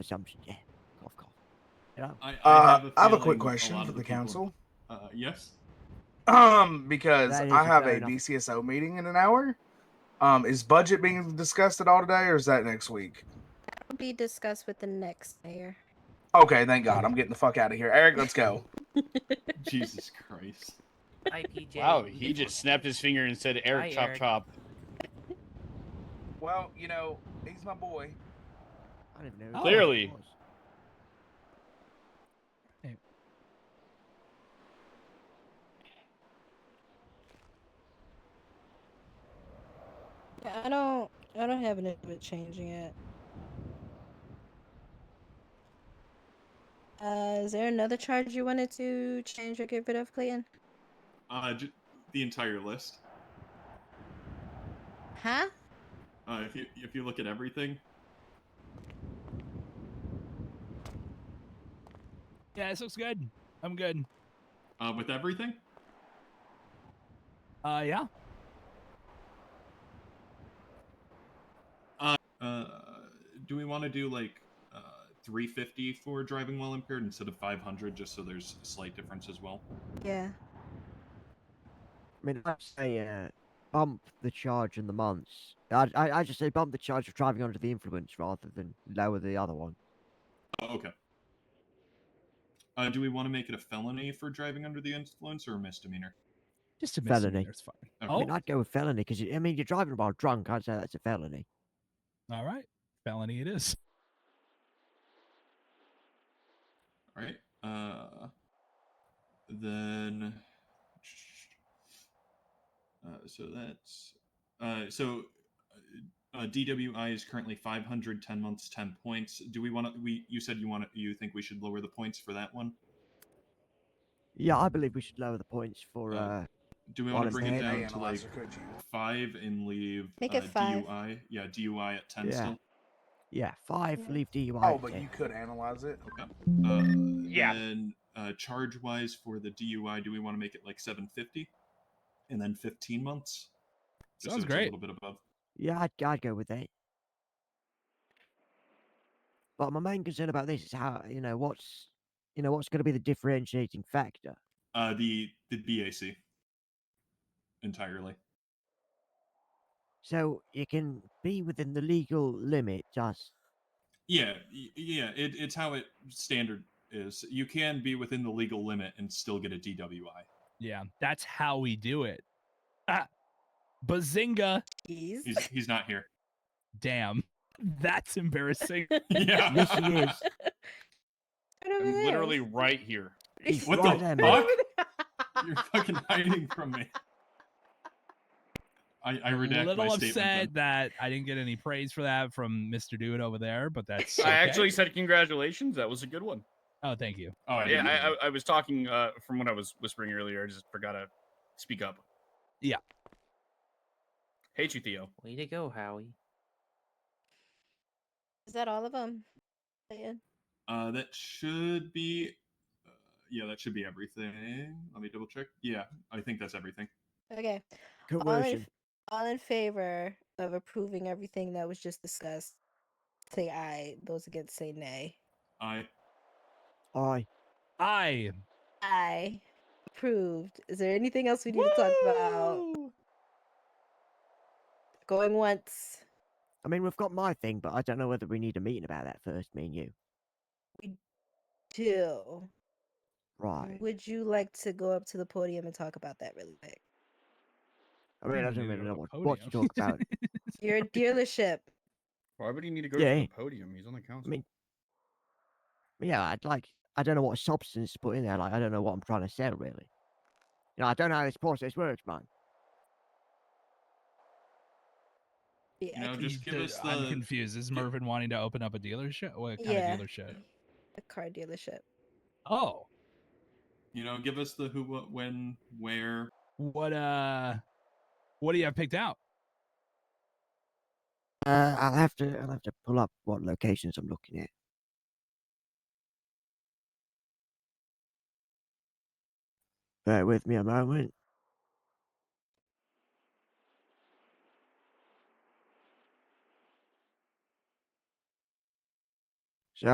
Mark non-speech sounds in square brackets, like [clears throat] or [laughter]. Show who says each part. Speaker 1: assumption. Yeah. Cough, cough. You know?
Speaker 2: I,
Speaker 3: Uh, I have a
Speaker 2: feeling
Speaker 3: quick
Speaker 2: lot
Speaker 3: question
Speaker 2: of
Speaker 3: for the
Speaker 2: people-
Speaker 3: council. [clears throat]
Speaker 2: Uh, yes.
Speaker 3: Um, because
Speaker 1: That is
Speaker 3: I have
Speaker 1: fair
Speaker 3: a
Speaker 1: enough.
Speaker 3: BCSO meeting in an hour. Um, is budget being discussed at all today, or is that next week?
Speaker 4: will be discussed with the next mayor.
Speaker 3: Okay, thank God. I'm getting the fuck out of here. Eric,
Speaker 2: [laughs]
Speaker 3: let's go.
Speaker 2: Jesus [laughs] Christ.
Speaker 5: Hi, PJ.
Speaker 6: Wow, he just snapped his finger and said, "Eric,
Speaker 5: Hi,
Speaker 6: chop
Speaker 5: Eric.
Speaker 6: chop."
Speaker 3: Well, you know, he's my boy.
Speaker 1: I don't even know. who that
Speaker 6: Clearly.
Speaker 1: was.
Speaker 4: I don't. I don't have an issue with changing it. Uh, is there another charge you wanted to change or get rid of, Clayton?
Speaker 2: Uh, j- the entire list.
Speaker 4: Huh?
Speaker 2: Uh, if you if you look at everything,
Speaker 7: Yeah, this looks good. I'm good.
Speaker 2: uh, with everything,
Speaker 7: Uh, yeah.
Speaker 2: uh, do we want to do like uh, 350 for driving while impaired instead of 500, just so there's a slight difference as well?
Speaker 4: Yeah.
Speaker 1: I mean, I'd say uh, bump the charge in the months. I'd, I, I just say bump the charge of driving under the influence rather than lower the other one.
Speaker 2: Oh, okay. Uh, do we want to make it a felony for driving under the influence or a misdemeanor?
Speaker 7: Just a
Speaker 1: Felony.
Speaker 7: misdemeanor. It's fine.
Speaker 2: Okay.
Speaker 1: I
Speaker 7: Oh,
Speaker 1: mean, I'd go with felony because, I mean, you're driving while drunk. I'd say that's a felony.
Speaker 7: all right. Felony it is.
Speaker 2: All right. Uh, then, uh, so that's uh, so uh, uh, DWI is currently 500, 10 months, 10 points. Do we want to? We you said you want to? You think we should lower the points for that one?
Speaker 1: Yeah, I believe we should lower the points for.
Speaker 3: Mm.
Speaker 2: Uh,
Speaker 1: Uh,
Speaker 2: Do we want to
Speaker 1: Honestly,
Speaker 2: bring it
Speaker 1: Hey,
Speaker 2: down to like
Speaker 3: Analyzer, could you?
Speaker 2: five and leave
Speaker 4: Make
Speaker 2: uh,
Speaker 4: it five.
Speaker 2: DUI? Yeah, DUI at 10
Speaker 1: Yeah.
Speaker 2: still.
Speaker 1: yeah, five,
Speaker 4: Yeah.
Speaker 1: leave DUI.
Speaker 3: Oh,
Speaker 1: at
Speaker 3: but
Speaker 1: 10.
Speaker 3: you could analyze it.
Speaker 2: Uh,
Speaker 3: Yeah.
Speaker 2: Then uh, charge wise for the DUI, do we want to make it like 750 and then 15 months? Just
Speaker 7: Sounds
Speaker 2: so it's
Speaker 7: great.
Speaker 2: A little bit above.
Speaker 1: Yeah, I'd, I'd go with that. But my main concern about this is how you know what's you know what's going to be the differentiating factor.
Speaker 2: Uh, the the BAC entirely.
Speaker 1: So you can be within the legal limit, just
Speaker 2: Yeah, y- yeah. It, it's how it standard is. You can be within the legal limit and still get a DWI.
Speaker 7: Yeah, that's how we do it. Ah, bazinga!
Speaker 4: Jeez.
Speaker 2: He's he's not here. [laughs]
Speaker 7: Damn, [laughs] that's embarrassing.
Speaker 2: Yeah.
Speaker 1: Yes, he is.
Speaker 4: Right over
Speaker 6: I'm
Speaker 4: there.
Speaker 6: literally
Speaker 4: [laughs]
Speaker 6: right here.
Speaker 1: He's
Speaker 2: What
Speaker 1: right there,
Speaker 2: the fuck?
Speaker 1: mate.
Speaker 2: [laughs] You're fucking hiding from me. I, I [laughs]
Speaker 7: A
Speaker 2: redact
Speaker 7: little
Speaker 2: my
Speaker 7: upset
Speaker 2: statement.
Speaker 7: that I didn't get any praise for that from Mr. Dude over there, but that's.
Speaker 6: I
Speaker 7: okay.
Speaker 6: actually said congratulations. That was a good one.
Speaker 7: Oh, thank you.
Speaker 2: then. Oh, I
Speaker 6: yeah,
Speaker 2: didn't
Speaker 6: I,
Speaker 2: know.
Speaker 6: I, I was talking uh, from what I was whispering earlier. I just forgot to speak up.
Speaker 7: Yeah.
Speaker 6: Hate you, Theo.
Speaker 5: Way to go, Howie.
Speaker 4: Is that all of them?
Speaker 2: Uh, that should be. Uh, yeah, that should be everything. Let me double check. Yeah, I think that's everything.
Speaker 4: Okay. All in,
Speaker 1: Coercion.
Speaker 4: all in favor of approving everything that was just discussed, say aye. Those against say nay.
Speaker 2: I
Speaker 1: Aye.
Speaker 7: I
Speaker 4: Aye. Approved. Is there anything else we need to talk about? Going once.
Speaker 1: I mean, we've got my thing, but I don't know whether we need a meeting about that first, me and you.
Speaker 4: Two.
Speaker 1: Right.
Speaker 4: Would you like to go up to the podium and talk about that really quick?
Speaker 1: I mean, I don't
Speaker 7: Maybe
Speaker 1: really
Speaker 7: on
Speaker 1: know
Speaker 7: the
Speaker 1: what, what to
Speaker 7: podium.
Speaker 1: talk about.
Speaker 7: [laughs]
Speaker 2: [laughs]
Speaker 4: Your dealership.
Speaker 6: Why would he need to go
Speaker 1: Yeah.
Speaker 6: to the podium? He's on the council.
Speaker 1: mean- yeah, I'd like, I don't know what substance to put in there. Like, I don't know what I'm trying to sell, really. You know, I don't know how this process works, man.
Speaker 4: Yeah.
Speaker 2: No,
Speaker 4: I
Speaker 2: just
Speaker 7: He
Speaker 2: give
Speaker 7: did-
Speaker 2: us
Speaker 7: I'm
Speaker 2: the-
Speaker 7: confused. Is
Speaker 2: gi-
Speaker 7: Mervin wanting to open up a dealership? What kind
Speaker 4: Yeah.
Speaker 7: of dealership?
Speaker 4: a car dealership.
Speaker 7: Oh,
Speaker 2: you know give us the who, what, when, where.
Speaker 7: what uh, what do you have picked out?
Speaker 1: Uh, I'll have to, I'll have to pull up what locations I'm looking at. Bear with me a moment.